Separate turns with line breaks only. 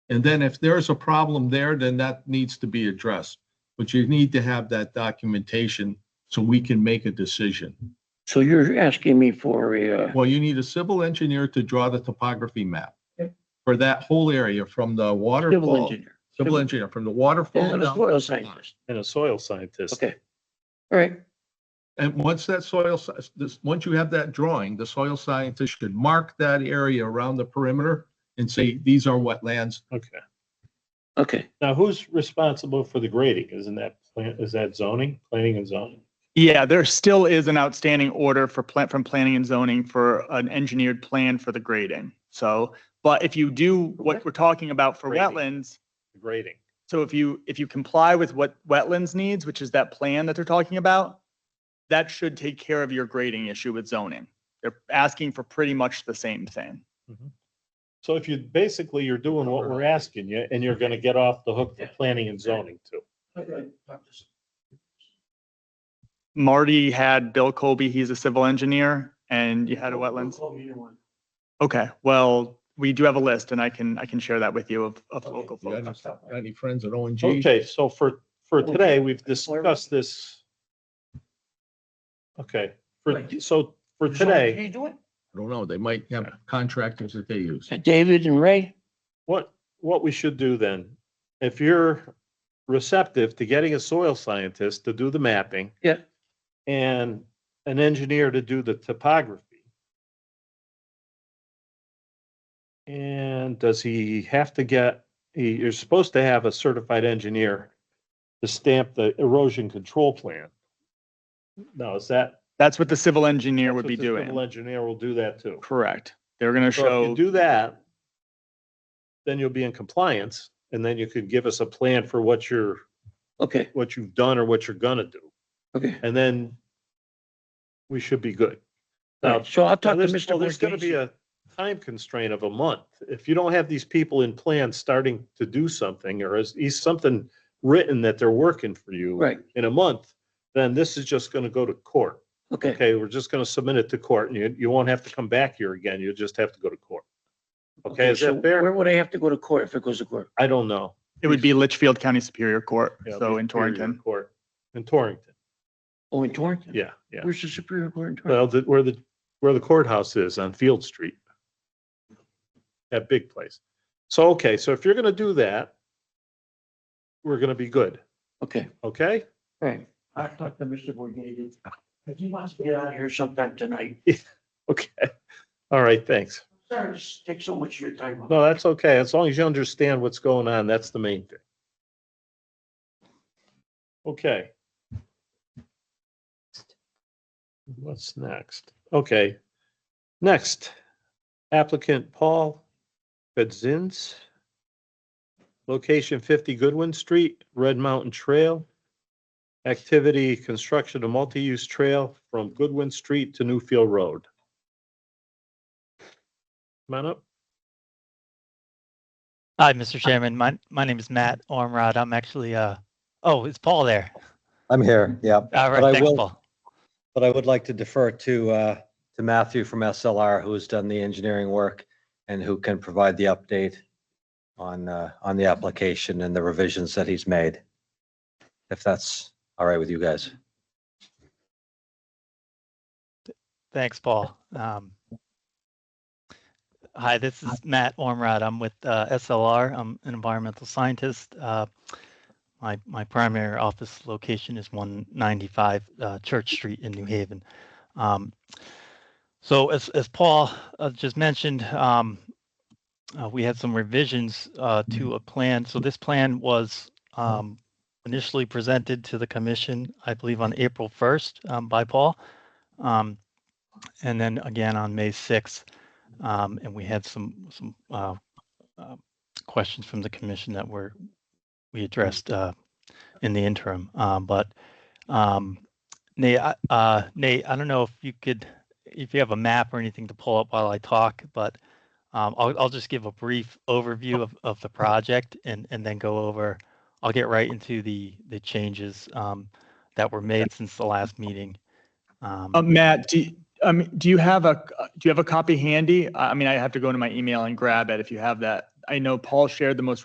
And then if there's a problem there, then that needs to be addressed. But you need to have that documentation so we can make a decision.
So you're asking me for a, uh,
Well, you need a civil engineer to draw the topography map
Yep.
for that whole area from the
civil
waterfall,
engineer
civil engineer, from the waterfall.
and a
down-
soil scientist.
and a soil scientist.
Okay. All right.
And once that soil, sci- this, once you have that drawing, the soil scientist should mark that area around the perimeter and say, these are wetlands.
Okay.
Okay.
Now, who's responsible for the grading? Isn't that plant, is that zoning, planning and zoning?
Yeah, there still is an outstanding order for plant from planning and zoning for an engineered plan for the grading. So, but if you do what we're talking about for
Grading.
wetlands,
The Grading.
so if you, if you comply with what wetlands needs, which is that plan that they're talking about, that should take care of your grading issue with zoning. They're asking for pretty much the same thing.
So if you, basically, you're doing what we're asking you, and you're gonna get off the hook for planning and zoning too.
Marty had Bill Colby, he's a civil engineer, and you had a wetlands. Okay, well, we do have a list and I can, I can share that with you of, of local
You got
folks.
any- got any friends at O and G?
Okay, so for, for today, we've discussed this. Okay, for, so for today,
You doing?
I don't know. They might have contractors that they use.
Uh, David and Ray?
what, what we should do then, if you're receptive to getting a soil scientist to do the mapping.
Yeah.
And an engineer to do the topography. And does he have to get, he, you're supposed to have a certified engineer to stamp the erosion control plan. Now, is that?
That's what the civil engineer
that's
would
what
be
the civil
doing.
Engineer will do that too.
Correct. They're going to
So if you
show,
do that, then you'll be in compliance and then you could give us a plan for what you're,
Okay,
what you've done or what you're gonna do.
okay.
And then we should be good.
All
Now,
right, So I'll talk to
there's, well,
Mr.
there's gonna be
Borghese.
a time constraint of a month. If you don't have these people in plan starting to do something or is, is something written that they're working for you
Right,
in a month, then this is just gonna go to court.
okay,
Okay, we're just gonna submit it to court and you, you won't have to come back here again. You'll just have to go to court. Okay, is
so
that fair?
Where would I have to go to court if it goes to court?
I don't know.
it would be Litchfield County Superior Court,
Yeah,
so in
Superior
Torrington.
Court, in Torrington,
Oh, in Torrington?
yeah, yeah.
Where's the Superior Court in Torrington?
Well, the, where the, where the courthouse is on Field Street. That big place. So, okay, so if you're gonna do that, we're gonna be good,
Okay,
okay?
all right. I'll talk to Mr. Borghese. If he wants to get out of here sometime tonight,
Okay, all right, thanks.
sorry to take so much of your time.
No, that's okay. As long as you understand what's going on, that's the main thing. Okay. What's next? Okay. Next applicant Paul Bedzins. Location fifty Goodwin Street, Red Mountain Trail. Activity, construction of multi-use trail from Goodwin Street to Newfield Road. Come on up.
Hi, Mr. Chairman. My, my name is Matt Ormrod. I'm actually, uh, oh, it's Paul there.
I'm here, yeah,
All
But I
right, thanks,
will-
Paul.
but I would like to defer to, uh, to Matthew from SLR, who's done the engineering work and who can provide the update on, uh, on the application and the revisions that he's made. If that's all right with you guys.
Thanks, Paul. Um, hi, this is Matt Ormrod. I'm with uh, SLR. I'm an environmental scientist. Uh, my my primary office location is 195 uh, Church Street in New Haven. Um, so, as as Paul uh, just mentioned, um, uh, we had some revisions uh, to a plan. So, this plan was um, initially presented to the commission, I believe, on April 1st um, by Paul. Um, and then again on May 6th. Um, and we had some, some, uh, uh, questions from the commission that were, we addressed, uh, in the interim. Um, but, um, Nate, I- uh, Nate, I don't know if you could, if you have a map or anything to pull up while I talk, but, um, I'll, I'll just give a brief overview of, of the project and, and then go over, I'll get right into the, the changes, um, that were made since the last meeting. Um,
Uh, Matt, do, you- um, do you have a, do you have a copy handy? I I mean, I have to go into my email and grab it if you have that. I know Paul shared the most